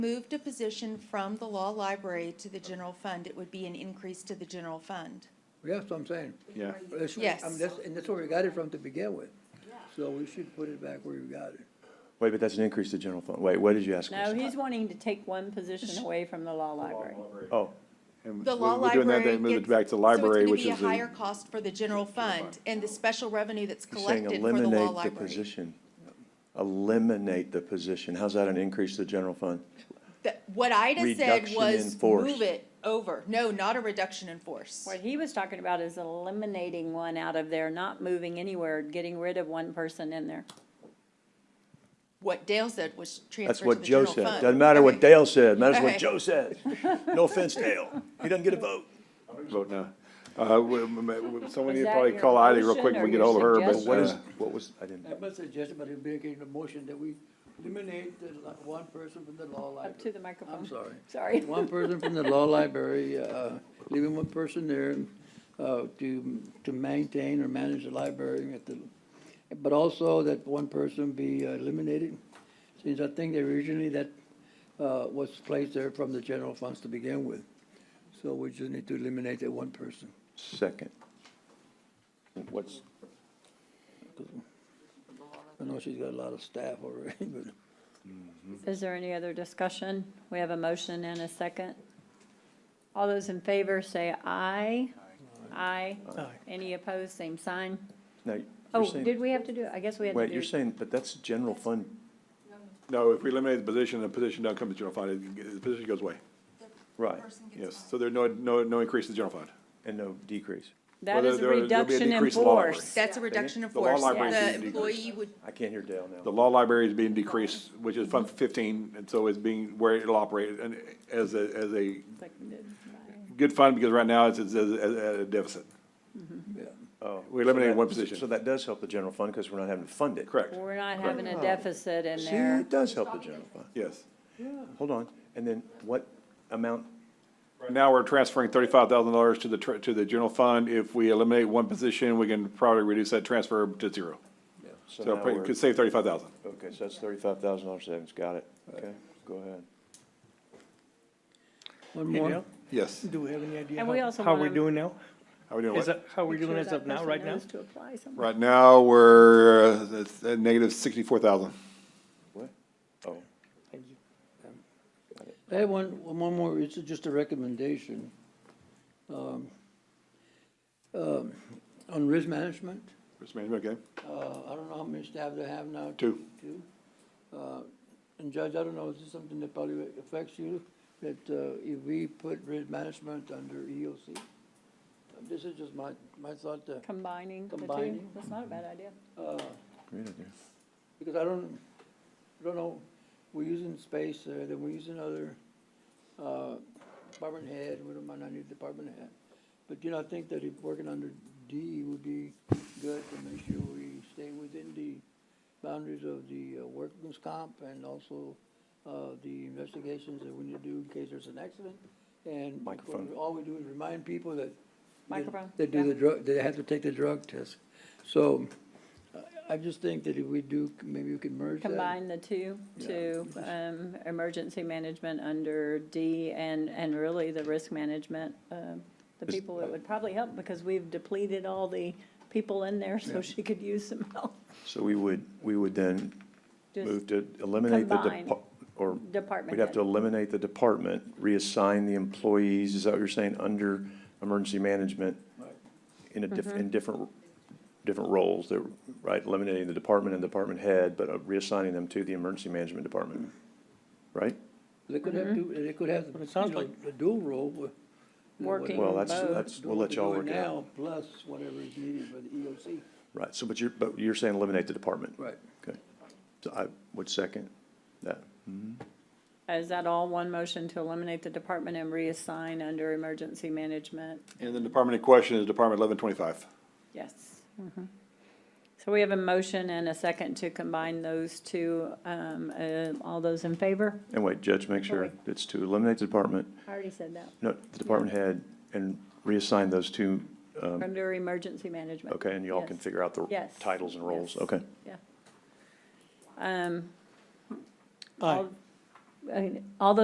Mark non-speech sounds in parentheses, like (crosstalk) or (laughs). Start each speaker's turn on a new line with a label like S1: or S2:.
S1: Moved a position from the law library to the general fund, it would be an increase to the general fund.
S2: Yeah, That's what I'm saying.
S3: Yeah.
S2: That's where-
S1: Yes.
S2: I mean, that's, and that's where we got it from to begin with. So we should put it back where we got it.
S3: Wait, but that's an increase to general fund. Wait, what did you ask? Uh,
S4: No,
S3: us?
S4: he's wanting to take one position away from the law library.
S3: Oh.
S1: The law
S3: We're doing that,
S1: library
S3: then
S1: gets.
S3: move it back to library, which
S1: So
S3: is
S1: it's gonna be a higher
S3: the,
S1: cost for the general fund and the special revenue that's
S3: he's saying
S1: collected for the law
S3: eliminate the
S1: library.
S3: position. Eliminate the position. How's that an increase to the general fund?
S1: That- What Ida said
S3: Reduction in
S1: was
S3: force.
S1: move it over, no, not a reduction in force.
S4: What he was talking about is eliminating one out of there, not moving anywhere, getting rid of one person in there.
S1: What Dale said was
S3: That's
S1: transfer to
S3: what
S1: the
S3: Joe
S1: general
S3: said.
S1: fund.
S3: Doesn't matter what
S1: Okay.
S3: Dale said, matters
S1: Okay.
S3: what Joe said. No offense, Dale. He doesn't get a vote.
S5: Vote no. Uh, we- we- we- Someone
S4: Was
S5: need to
S4: that
S5: probably
S4: your
S5: call Heidi real
S4: motion
S5: quick when
S4: or
S5: we get
S4: your
S5: hold of her, but
S4: suggestion?
S3: What is,
S5: uh,
S3: what was, I didn't,
S2: I must suggest, but it'd be a motion that we eliminate the li- one person from the law library.
S4: Up to the microphone.
S2: I'm sorry.
S4: Um, (laughs) Sorry.
S2: One person from the law library, uh, leaving one person there, uh, to, to maintain or manage the library at the, but also that one person be eliminated, since I think that originally that, uh, was placed there from the general funds to begin with. So we just need to eliminate that one person.
S3: second. What's,
S2: I know she's got a lot of staff already, (laughs) but.
S4: Is there any other discussion? We have a motion and a second. All those in favor say aye. Aye. Any opposed, same sign.
S3: now,
S4: Oh,
S3: you're saying,
S4: did we have to do, I guess we had to
S3: wait,
S4: do.
S3: you're saying, but that's general fund.
S5: no, if we eliminate the position, the position doesn't come to general fund, it- it- the position goes away.
S3: Right,
S5: Yes, so there's no, no, no increase to general fund.
S3: and no decrease.
S4: That is
S5: Well, there-
S4: a
S5: there'll be a
S4: reduction in
S5: decrease in law library.
S4: force.
S1: That's a reduction in
S5: The law
S1: force.
S5: library
S1: The
S5: is being
S1: employee would,
S3: I can't hear Dale
S5: The
S3: now.
S5: law library is being decreased, which is Fund fifteen, and so it's being, where it'll operate, and as a, as a good fund, because right now it's, it's at at a deficit.
S3: Oh,
S5: We
S3: so
S5: eliminated
S3: that-
S5: one position.
S3: So that does help the general fund because we're not having to fund it.
S5: Correct,
S4: We're not having
S6: Oh.
S4: a deficit in
S3: See,
S4: there.
S3: it does help the general fund.
S5: yes.
S3: Hold on, and then what amount,
S5: Right now, we're transferring thirty-five thousand dollars to the, tr- to the general fund. If we eliminate one position, we can probably reduce that transfer to zero. So
S3: so
S5: it
S3: now we're,
S5: could save thirty-five thousand.
S3: okay, so that's thirty-five thousand dollars savings, got it, okay, go ahead.
S2: One
S6: Hey,
S2: more.
S6: Dale,
S5: Yes.
S6: do we have any idea
S4: And we
S6: how,
S4: also
S6: how
S4: wanna-
S6: we're doing now?
S5: How we doing?
S6: Is
S5: what?
S6: that, how we're doing as of now, right now?
S4: To apply somewhere.
S5: Right now, we're uh, it's at negative sixty-four thousand.
S3: What? Oh,
S6: Thank you.
S2: I have one, one more, it's just a recommendation. Um, um, On risk management,
S5: Risk management, okay?
S2: uh, I don't know how many staff they have now.
S5: Two.
S2: Two. Uh, And Judge, I don't know, is this something that probably affects you, that uh, if we put risk management under EOC? This is just my, my thought, uh,
S4: Combining the two,
S2: Combining.
S4: that's not a bad idea.
S3: great idea.
S2: because I don't, I don't know, we're using space there, then we're using other, uh, department head, we don't mind, I need department head. But, you know, I think that if working under D would be good to make sure we stay within the boundaries of the uh, workman's comp and also, uh, the investigations that we need to do in case there's an accident. And what we-
S3: Microphone.
S2: all we do is remind people that that-
S4: Microphone,
S2: That do
S4: yeah.
S2: the drug, that have to take the drug test. So I- I just think that if we do, maybe we can merge that.
S4: Combine the two to, um, emergency management under D and, and really the risk management, um, the
S3: Is-
S4: people, it would probably help because we've depleted all the people in there, so she could use some help.
S3: So we would, we would then
S4: Just
S3: move to eliminate the,
S4: combine.
S3: depa- or,
S4: Department
S3: we'd have
S4: head.
S3: to eliminate the department, reassign the employees, is that what you're saying, under emergency management? In a diff,
S4: Mm-hmm.
S3: in different, different roles, that, right, eliminating the department and department head, but uh, reassigning them to the emergency management department, right?
S2: They could have
S4: Mm-hmm.
S2: two, they could have,
S6: But it sounds
S2: you know,
S6: like-
S2: a dual role. with, you know, what-
S4: Working
S3: Well, that's,
S4: Both.
S3: that's, we'll let
S2: do
S3: y'all work it out.
S2: now, Plus whatever is needed for the E EOC.
S3: Right, so, but you're, but you're saying eliminate the department?
S2: Right.
S3: Okay. So I would second that.
S4: Is that all one motion to eliminate the department and reassign under emergency management?
S5: And the department in question is Department eleven twenty-five.
S4: Yes. Mm-hmm. So we have a motion and a second to combine those two. Um, uh, all those in favor?
S3: And wait, Judge, make sure
S4: Okay.
S3: it's to eliminate the department,
S4: I already said that.
S3: no, the department head, and reassign those two, um,
S4: Under emergency management.
S3: okay, and y'all can
S4: Yes.
S3: figure out the
S4: Yes.
S3: titles and roles,
S4: Yes.
S3: okay.
S4: Yeah. Um,
S6: Aye.
S4: all- I mean, all those